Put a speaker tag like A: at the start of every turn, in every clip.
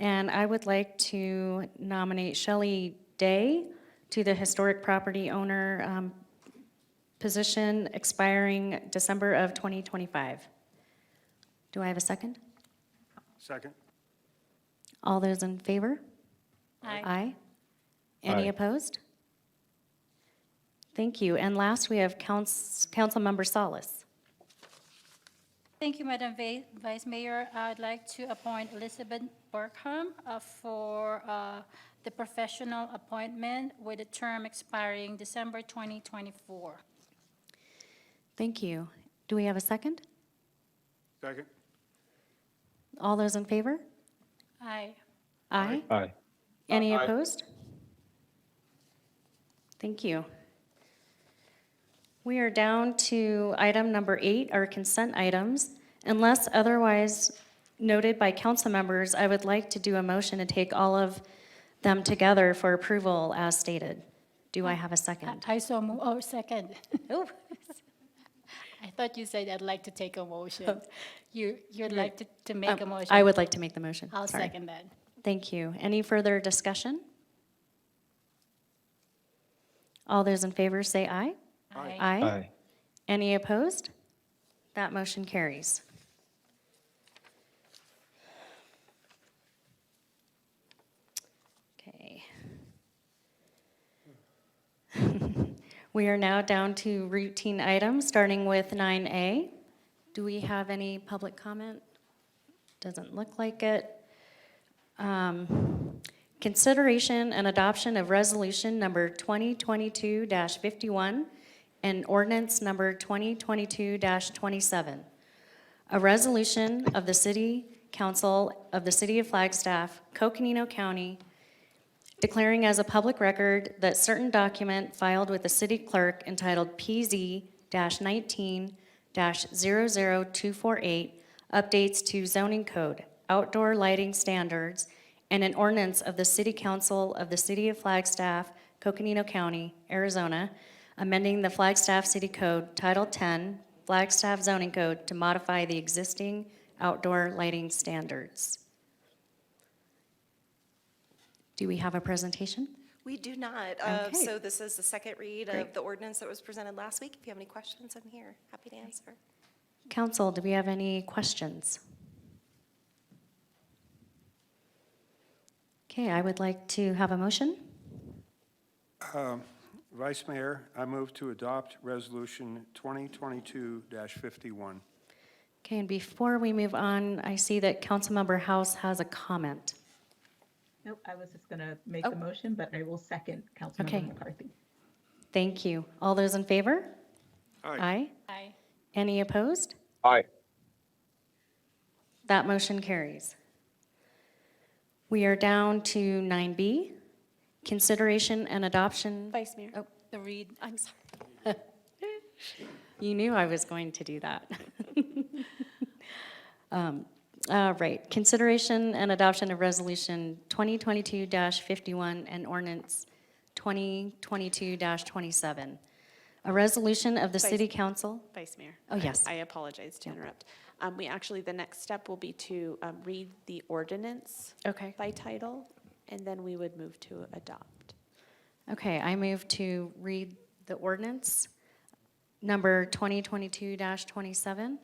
A: And I would like to nominate Shelley Day to the Historic Property Owner um, position expiring December of 2025. Do I have a second?
B: Second.
A: All those in favor?
C: Aye.
A: Aye. Any
D: Aye.
A: opposed? Thank you. And last, we have Council, Councilmember Solis.
C: Thank you, Madam Va- Vice Mayor. I'd like to appoint Elizabeth Burkham uh, for uh, the professional appointment with a term expiring December 2024.
A: Thank you. Do we have a second?
B: Second.
A: All those in favor?
C: Aye.
A: Aye.
D: Aye.
A: Any opposed? Thank you. We are down to item number eight, our consent items. Unless otherwise noted by council members, I would like to do a motion to take all of them together for approval as stated. Do I have a second?
C: I so move, oh, second. I thought you said I'd like to take a motion. You, you'd like to, to make a
A: Um,
C: motion?
A: I would like to make the motion.
C: I'll
A: Sorry.
C: second that.
A: Thank you. Any further discussion? All those in favor say aye.
B: Aye.
A: Aye. Any opposed? That motion carries. Okay. We are now down to routine items, starting with 9A. Do we have any public comment? Doesn't look like it. Um, Consideration and adoption of resolution number 2022-51 and ordinance number 2022-27. A resolution of the City Council of the City of Flagstaff, Coconino County, declaring as a public record that certain document filed with the city clerk entitled PZ-19-00248, updates to zoning code, outdoor lighting standards, and an ordinance of the city council of the city of Flagstaff, Coconino County, Arizona, amending the Flagstaff City Code, Title 10, Flagstaff zoning code to modify the existing outdoor lighting standards. Do we have a presentation?
E: We do not. Uh,
A: Okay.
E: So this is the second read of the ordinance that was presented last week. If you have any questions, I'm here, happy to answer.
A: Council, do we have any questions? Okay, I would like to have a motion.
B: Vice Mayor, I move to adopt Resolution 2022-51.
A: Okay, and before we move on, I see that Councilmember House has a comment.
F: Nope, I was just going to make the motion, but I will second
A: Oh. Okay.
F: Councilmember McCarthy.
A: Thank you. All those in favor? Aye.
C: Aye.
A: Any opposed?
D: Aye.
A: That motion carries. We are down to 9B, consideration and adoption.
E: Vice Mayor.
A: Oh,
C: The read,
E: I'm sorry.
A: You knew I was going to do that. Um, All right, consideration and adoption of Resolution 2022-51 and ordinance 2022-27. A resolution of the
G: Vice-
A: City Council,
G: Vice Mayor.
A: Oh,
G: I-
A: yes.
G: I apologize to interrupt. Um, We actually, the next step will be to um, read the ordinance
A: okay,
G: by title, and then we would move to adopt.
A: okay, I move to read the ordinance, number 2022-27.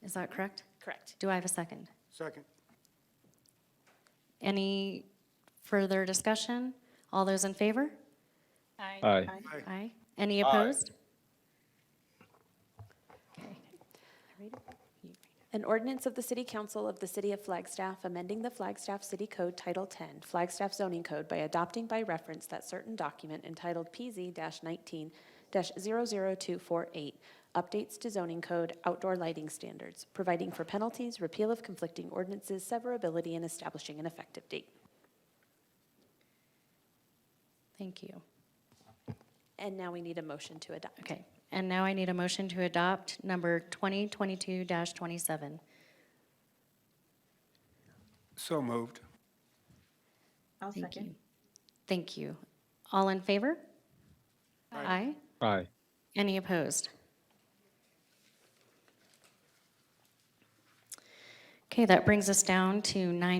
A: Is that correct?
G: Correct.
A: Do I have a second?
B: Second.
A: Any further discussion? All those in favor?
C: aye.
D: Aye.
A: Aye. Any opposed? Okay.
G: An ordinance of the City Council of the City of Flagstaff amending the Flagstaff City Code Title 10, Flagstaff Zoning Code by adopting by reference that certain document entitled PZ-19-00248, updates to zoning code, outdoor lighting standards, providing for penalties, repeal of conflicting ordinances, severability, and establishing an effective date.
A: Thank you.
G: And now we need a motion to adopt.
A: Okay. And now I need a motion to adopt number 2022-27.
B: So moved.
F: I'll
A: Thank
F: second.
A: you. Thank you. All in favor? Aye.
D: Aye.
A: Any opposed? Okay, that brings us down to 9